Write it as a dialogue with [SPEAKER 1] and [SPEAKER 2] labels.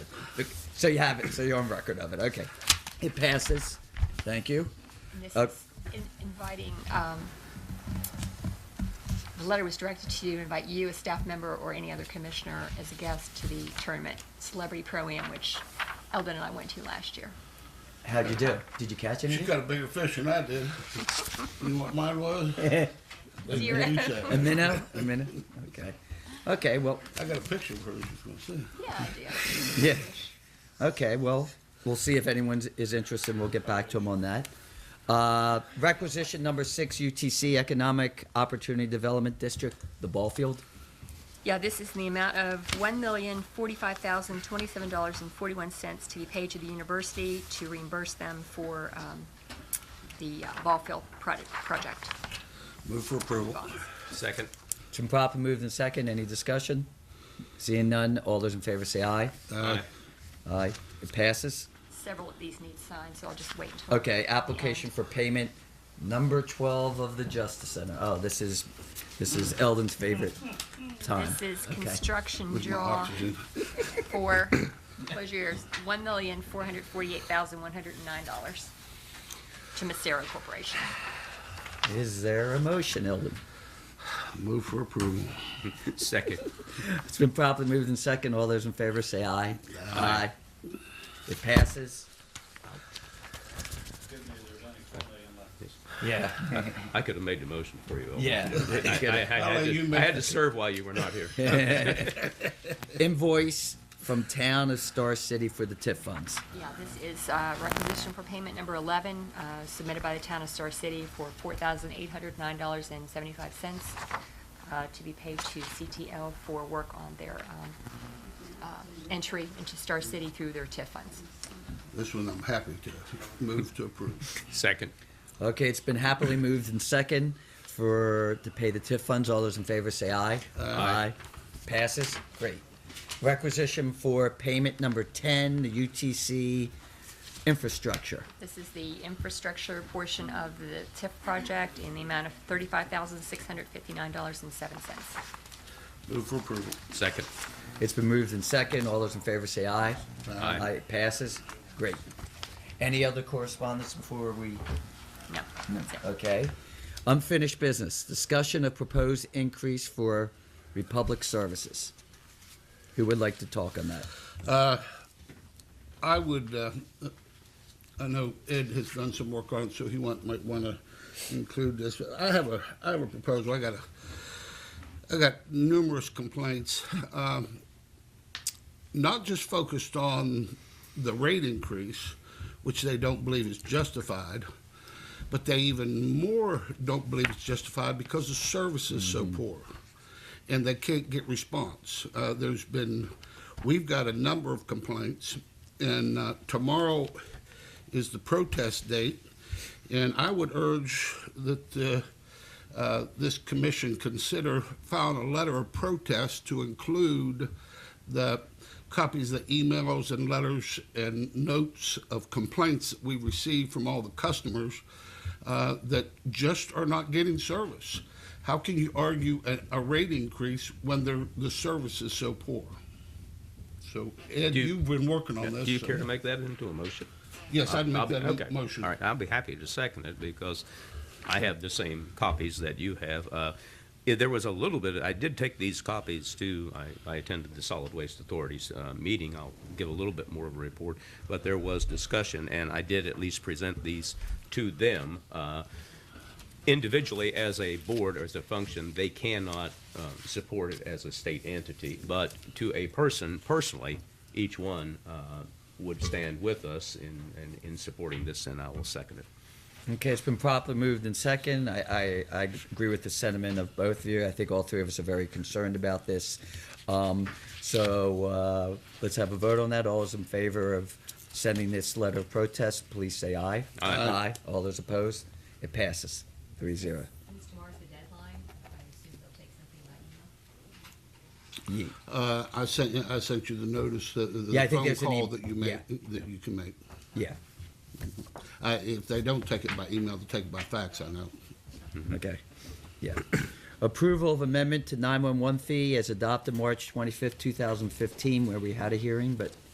[SPEAKER 1] So you have it. So you're on record of it. Okay. It passes. Thank you.
[SPEAKER 2] And This
[SPEAKER 1] Uh,
[SPEAKER 2] is in- inviting, um, the letter was directed to you, to invite you, a staff member, or any other commissioner as a guest to the tournament, Celebrity Pro-Am, which Eldon and I went to last year.
[SPEAKER 1] How'd you do? Did you catch
[SPEAKER 3] She
[SPEAKER 1] anything?
[SPEAKER 3] got a bigger fish than I did. You know what mine was? That's
[SPEAKER 2] Zero.
[SPEAKER 1] A
[SPEAKER 3] Moonshine.
[SPEAKER 1] minnow? A minnow? Okay. Okay, well,
[SPEAKER 3] I got a picture of her. She's gonna see.
[SPEAKER 2] Yeah, I do.
[SPEAKER 1] yeah. Okay, well, we'll see if anyone is interested, and we'll get back to them on that. Uh, requisition number six, UTC Economic Opportunity Development District, the ball field.
[SPEAKER 2] Yeah, this is in the amount of one million forty-five thousand twenty-seven dollars and forty-one cents to be paid to the university to reimburse them for, um, the uh, ball field product, project.
[SPEAKER 3] Move for approval.
[SPEAKER 4] Second.
[SPEAKER 1] It's been properly moved in second. Any discussion? Seeing none, all those in favor say aye.
[SPEAKER 3] Aye.
[SPEAKER 1] Aye. It passes.
[SPEAKER 2] Several of these need signed, so I'll just wait until.
[SPEAKER 1] Okay, application for payment number twelve of the Justice Center. Oh, this is, this is Eldon's favorite time.
[SPEAKER 2] This is
[SPEAKER 1] Okay.
[SPEAKER 2] construction
[SPEAKER 3] With my
[SPEAKER 2] draw.
[SPEAKER 3] oxygen.
[SPEAKER 2] for, close your ears, one million, four hundred forty-eight thousand, one hundred and nine dollars to Macero Corporation.
[SPEAKER 1] Is there a motion, Eldon?
[SPEAKER 3] Move for approval.
[SPEAKER 4] Second.
[SPEAKER 1] It's been properly moved in second. All those in favor say aye. Aye. It passes. Yeah.
[SPEAKER 4] I could have made the motion for you.
[SPEAKER 1] Yeah.
[SPEAKER 4] I, I- I had,
[SPEAKER 3] you
[SPEAKER 4] to, I
[SPEAKER 3] make
[SPEAKER 4] had to serve while you were not here.
[SPEAKER 1] Invoice from Town of Star City for the TIF funds.
[SPEAKER 2] Yeah, this is uh, requisition for payment number eleven, uh, submitted by the town of Star City for four thousand, eight hundred nine dollars and seventy-five cents uh, to be paid to CTL for work on their um, uh, entry into Star City through their TIF funds.
[SPEAKER 3] This one I'm happy to. Move to approve.
[SPEAKER 4] Second.
[SPEAKER 1] Okay, it's been happily moved in second for, to pay the TIF funds. All those in favor say aye. Aye. Passes? Great. Requisition for payment number 10, the UTC infrastructure.
[SPEAKER 2] This is the infrastructure portion of the TIF project in the amount of thirty-five thousand, six hundred fifty-nine dollars and seven cents.
[SPEAKER 3] Move for approval.
[SPEAKER 4] Second.
[SPEAKER 1] It's been moved in second. All those in favor say aye.
[SPEAKER 4] Aye.
[SPEAKER 1] It passes? Great. Any other correspondence before we?
[SPEAKER 2] No. that's it.
[SPEAKER 1] Okay. Unfinished business, discussion of proposed increase for Republic Services. Who would like to talk on that?
[SPEAKER 3] I would, uh, I know Ed has done some work on it, so he want, might want to include this. I have a, I have a proposal. I got a, I got numerous complaints, um, not just focused on the rate increase, which they don't believe is justified, but they even more don't believe it's justified because the service is so poor and they can't get response. Uh, there's been, we've got a number of complaints, and uh, tomorrow is the protest date, and I would urge that uh, uh, this commission consider filing a letter of protest to include the copies of the emails and letters and notes of complaints that we receive from all the customers uh, that just are not getting service. How can you argue a, a rate increase when they're, the service is so poor? So, Ed,
[SPEAKER 4] Do you-
[SPEAKER 3] you've been working on
[SPEAKER 4] Do
[SPEAKER 3] this.
[SPEAKER 4] you care
[SPEAKER 3] so-
[SPEAKER 4] to make that into a motion?
[SPEAKER 3] Yes, I'd
[SPEAKER 4] I'll
[SPEAKER 3] make
[SPEAKER 4] be-
[SPEAKER 3] that
[SPEAKER 4] okay.
[SPEAKER 3] a motion.
[SPEAKER 4] All right, I'll be happy to second it because I have the same copies that you have. Uh, yeah, There was a little bit, I did take these copies to, I- I attended the Solid Waste Authority's uh, meeting. I'll give a little bit more of a report, but there was discussion, and I did at least present these to them. uh, individually as a board or as a function, they cannot um, support it as a state entity. But to a person personally, each one uh, would stand with us in, in, in supporting this, and I will second it.
[SPEAKER 1] Okay, it's been properly moved in second. I, I, I agree with the sentiment of both of you. I think all three of us are very concerned about this. Um, so uh, let's have a vote on that. All those in favor of sending this letter of protest, please say aye.
[SPEAKER 4] Aye.
[SPEAKER 1] Aye. All those opposed? It passes. Three zero.
[SPEAKER 5] Since tomorrow's the deadline, I assume they'll take something by email.
[SPEAKER 1] Ye-
[SPEAKER 3] Uh, I sent, you- I sent you the notice, the, the
[SPEAKER 1] Yeah, I think
[SPEAKER 3] phone
[SPEAKER 1] there's an
[SPEAKER 3] call
[SPEAKER 1] em-
[SPEAKER 3] that you
[SPEAKER 1] yeah.
[SPEAKER 3] make, that you can make.
[SPEAKER 1] Yeah.
[SPEAKER 3] I, if they don't take it by email, they take it by fax, I know.
[SPEAKER 1] Okay. Yeah. Approval of amendment to 911 fee as adopted March 25th, 2015, where we had a hearing, but